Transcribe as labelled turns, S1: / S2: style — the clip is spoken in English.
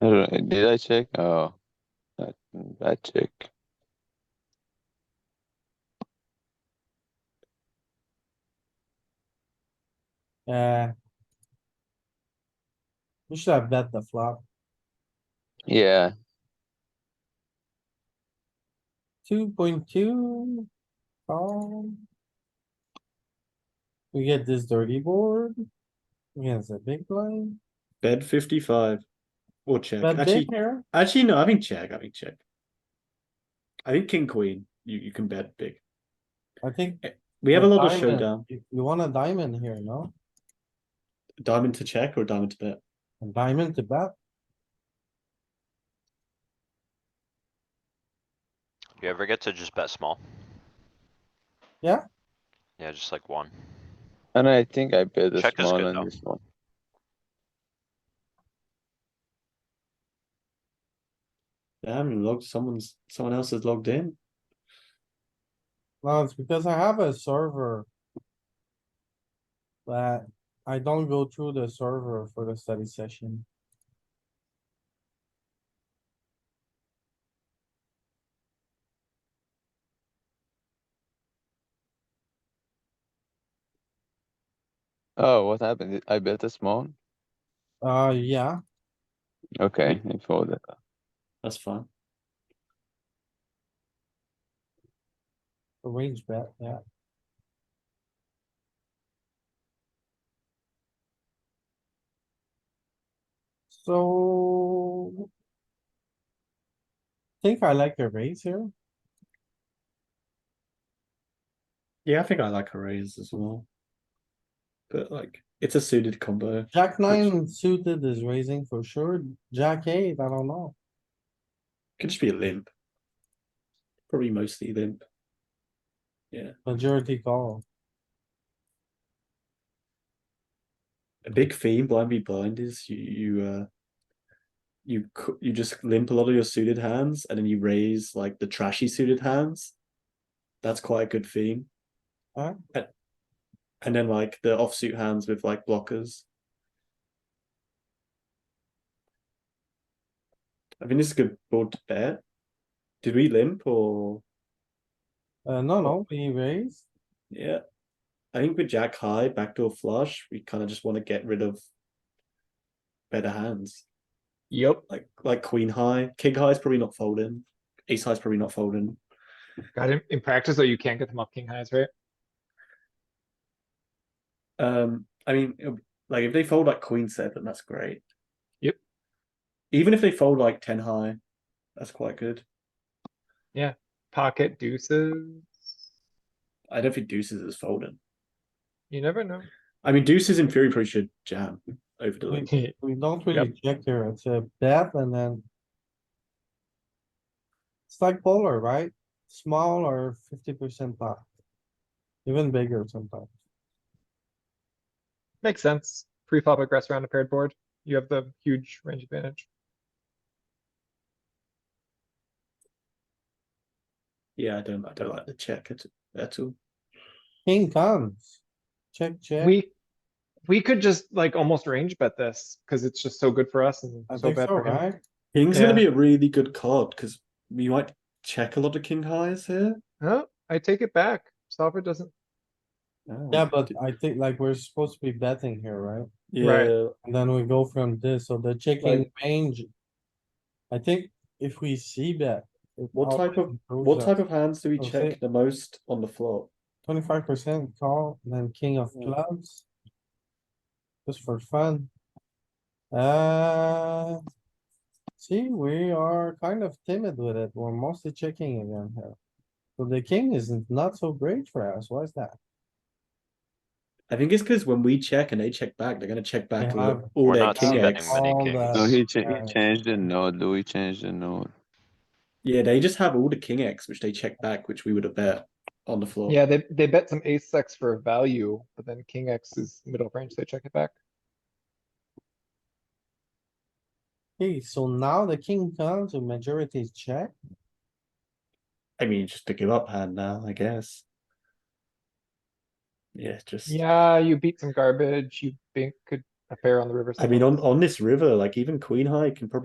S1: I don't know, Did I check? Oh, that, that check.
S2: Uh. We should have bet the flop.
S1: Yeah,
S2: Two point two. Call. We get this dirty board. We have a big blind.
S3: Bet fifty-five. Or check.
S2: Bet big
S3: Actually,
S2: here.
S3: actually, no, I think check, I think check. I think king, queen, you, you can bet big.
S2: I think.
S3: We have a
S2: the
S3: lot of
S2: diamond-
S3: showdown.
S2: You you want a diamond here, no?
S3: Diamond to check or diamond to bet?
S2: A diamond to bet.
S4: You ever get to just bet small?
S2: Yeah.
S4: Yeah, just like one.
S1: and I think I bet the
S4: Check is
S1: small
S4: good, though.
S1: on this one.
S3: Damn, logged, someone's, someone else has logged in.
S2: Well, it's because I have a server. But I don't go through the server for the study session.
S1: Oh, what happened? I bet the small?
S2: Uh, yeah,
S1: Okay, I folded.
S3: That's fine.
S2: a range bet, yeah. So. Think I like the raise here.
S3: Yeah, I think I like a raise as well. But like, it's a suited combo.
S2: Jack nine suited is raising for sure. Jack eight, I don't know.
S3: Could just be a limp. Probably mostly limp.
S2: Majority call.
S3: A big theme blind be blind is you you uh you c- you just limp a lot of your suited hands and then you raise like the trashy suited hands. That's quite a good theme.
S2: Alright.
S3: And, and then like the offsuit hands with like blockers. I mean, this is a good board to bet. Did we limp or
S2: Uh, no, no, we raise.
S3: yeah? I think with Jack High backdoor flush, we kind of just want to get rid of better hands.
S5: Yep,
S3: like like queen high, king high is probably not folding, ace high is probably not folding.
S5: got him in practice though. You can't get them up king highs, right?
S3: Um, I mean, it'll- like if they fold like queen seven, that's great.
S5: Yep.
S3: Even if they fold like ten high, that's quite good.
S5: Pocket deuces.
S3: I don't think deuces is folding.
S5: You never know.
S3: I mean, deuces in theory probably should jam over the limp.
S2: We don't really check here, it's a bet and then. It's like polar, right? Small or fifty percent pot. Even bigger sometimes.
S5: Makes sense. Pre-flop aggress around a paired board. You have the huge range advantage.
S3: Yeah, I don't, I don't like the check at, at all.
S2: King comes. Check, check.
S5: We, we could just like almost range bet this because it's just so good for us and
S2: I
S5: so
S2: think
S5: bad
S2: so,
S5: for him.
S2: right?
S3: King's
S5: Yeah.
S3: gonna be a really good card because we might check a lot of king highs here.
S5: Oh, I take it back. Solver doesn't,
S3: Oh,
S2: Yeah, but
S3: d-
S2: I think like we're supposed to be betting here, right?
S5: Right.
S3: yeah,
S2: And then we go from this, so the checking range. I think if we see bet.
S3: What type of- what type of hands do we
S2: I'll say-
S3: check the most on the flop?
S2: Twenty-five percent call, and then king of
S3: Yeah.
S2: clubs. Just for fun. Uh. See, we are kind of timid with it. We're mostly checking again here. So the king is not so great for us. Why is that?
S3: I think it's because when we check and they check back, they're gonna check back
S2: Yeah.
S3: all- all
S4: We're
S3: their
S4: not
S3: king
S4: spending
S3: X.
S4: many
S2: All
S4: kings.
S2: that.
S1: No, he cha-
S2: Yeah.
S1: he changed the node, Louis changed the node.
S3: Yeah, they just have all the king X, which they check back, which we would have bet on the floor.
S5: yeah, they, they bet some ace X for value, but then king X is middle range. They check it back.
S2: Okay, so now the king comes, the majority is check.
S3: I mean, just to give up hand now, I guess. Yeah, just.
S5: Yeah, you beat some garbage. You bink a a pair on the river.
S3: I mean,
S5: somewhere.
S3: on on this river, like even queen high can probably